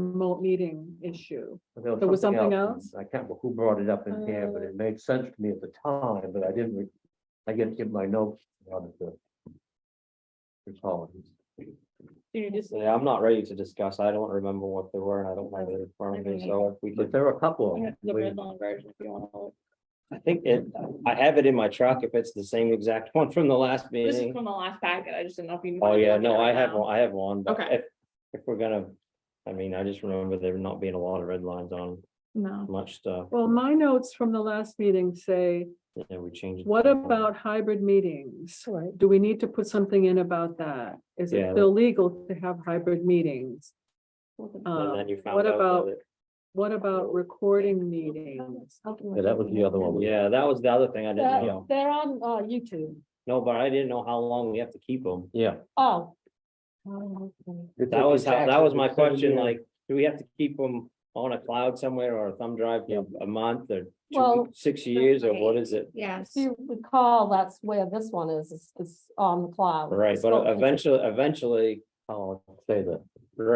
remote meeting issue. There There was something I can't, remember who brought it up in here, but it made sense to me at the time, but I didn't, re- I didn't get my notes on the. Recall. it. You just, Yeah, I'm not ready to discuss. I don't remember what they were and I don't have it in front of me, so if we But could. there are a couple Oh, of them. We- line version if you want to. I think it, I have it in my truck if it's the same exact one from the last This is meeting. from the last packet, I just didn't know if you. Oh, wanted to yeah, look at no, it I have, now. one. I have one. but Okay. If, if we're gonna, I mean, I just remember there not being a lot of red lines on no. much stuff. Well, my notes from the last meeting say, Yeah, we changed. what about hybrid meetings? Right. Do we need to put something in about that? Is it Yeah. still legal to have hybrid meetings? And Um, then you what found out. about- that it- What about recording meetings? Yeah, that was the other one. Yeah, that was the other thing I didn't They're know. they're on uh, YouTube. No, but I didn't know how long we have to keep them. Yeah. Oh. It's- That was how, it's that was my actually seven question, years. like, do we have to keep them on a cloud somewhere or a thumb drive for a month or two, Well, six years or what is it? Yes. If you recall, that's where this one is, is- is on the cloud. Right, It's but not- eventually, eventually, Oh, I'll say that.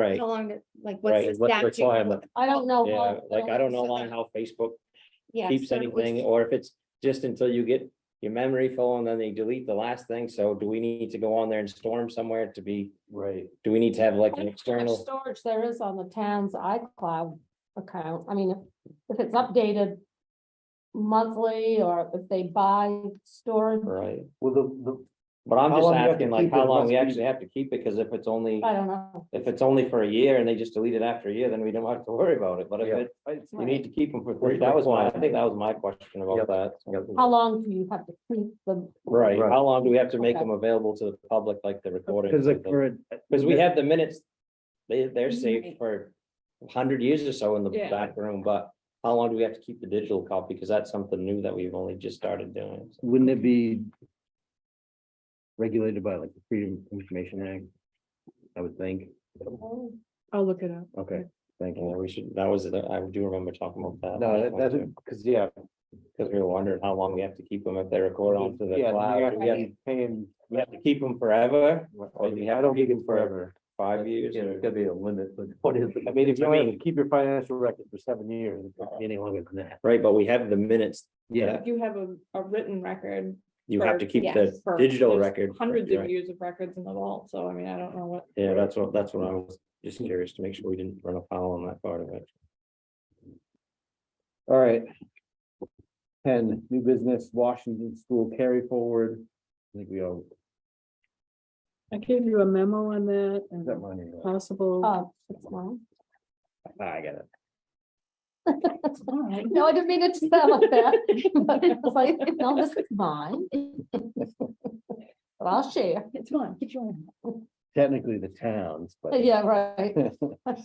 right, How long, did- like, Right, what's the and what's the statute? uh, requirement? I don't know. yeah, how- like, I don't know so why that- how Facebook Yeah, keeps so it was- anything, or if it's just until you get your memory full and then they delete the last thing, so do we need to go on there and storm somewhere to be, Right. do we need to have like an How much external? Storage there is on the town's iCloud account. I mean, if, if it's updated monthly or if they buy storage, Right, Well, the, but I'm How just long you have to asking like keep it how long must we be- actually have to keep it, because if it's only. I don't know. If it's only for a year and they just delete it after a year, then we don't have to worry about it, but if Yeah. it, you Right. need to keep them for three, that was my, I think that was my question Yep. about that. the. How long do you have to keep them? Right, Right. how long do we have to make Okay. them available to the public, like the recording? Cause like for, a- Because we have the minutes, they, they're Right. saved for a hundred years or so in the Yeah. back room, but how long do we have to keep the digital copy? Because that's something new that we've only just started doing. so. wouldn't it be regulated by like the Freedom of Information Act? I would think. I'll look it up. Okay, thank Yeah, you. we should, that was, the- I do remember talking about that. No, that- that's, because, yeah. Because we were wondering how long we have to keep them if they record onto the yeah, cloud. Do you we have have to be Paying. We have to keep them forever, I or do we have to don't keep think them it's for forever. five years? Yeah, or- There's gotta be a limit, but what is, I mean, if you I only mean- keep your financial record for seven years, it's not Any longer than that. Right, but we have the minutes, Yeah, You have a, a written record. you have to for- keep the yes, for- digital there's record. Hundreds of right? years of records in the vault, so I mean, I don't know what. Yeah, that's what, that's what I was just curious to make sure we didn't run afoul on that part of it. all right. Ten, new business, Washington School carry forward. I think we all, I gave you a memo on that is that and mine? or- possible. Oh, it's mine. Ah, I got it. No, I didn't mean it to sound like that. But I was like, no, this is mine. But I'll share. It's fine, keep going. Technically the towns, but. Yeah, right.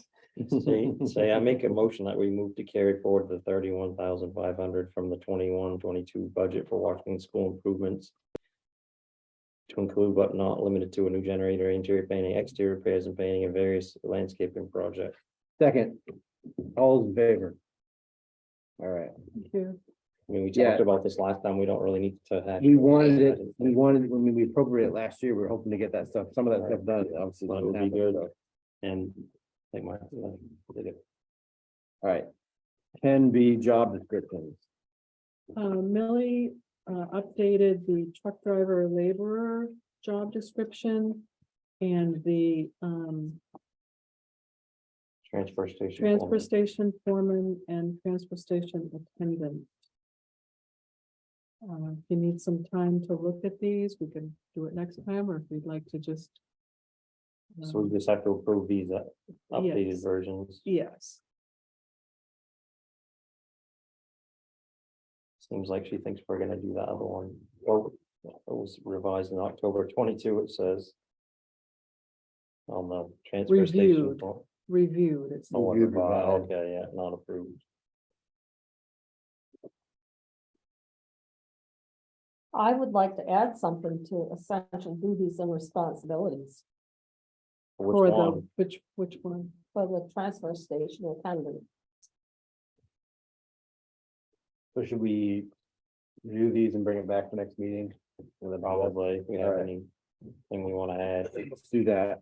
Say, say I make a motion that we move to carry forward the thirty-one thousand five hundred from the 21-22 budget for Washington School improvements. To include but not limited to a new generator, interior painting, exterior repairs and painting and various landscaping projects. Second, all's in favor. All right, Thank you. I mean, we Yeah. talked about this last time, we don't really need to hash. we wanted it, we wanted, when we appropriated it last year, we were hoping to get that stuff, some of that stuff done, obviously. Well, it didn't would be happen, good. so. And like my, uh, like, did it- All right. Can be job descriptions. Uh, Millie, uh, updated the truck driver laborer job description and the, um, transfer station. transfer foreman. station foreman and transfer station attendant. Uh, if you need some time to look at these, we can do it next time, or if you'd like to just. So we um, just have to approve these uh, updated Yes. versions. Yes, Seems like she thinks we're gonna do that other one. Well, it was revised in October twenty-two, it says. On the transfer station. Reviewed. for- reviewed, it's, oh, what Reviewed, revised, revised. Okay, yeah, not approved. I would like to add something to essential duties and responsibilities Which or the, one? which, which one? for the transfer station attendant. So should we review these and bring it back for next meeting? And then I'll- Probably, if we All have right. anything we wanna add. Let's do that.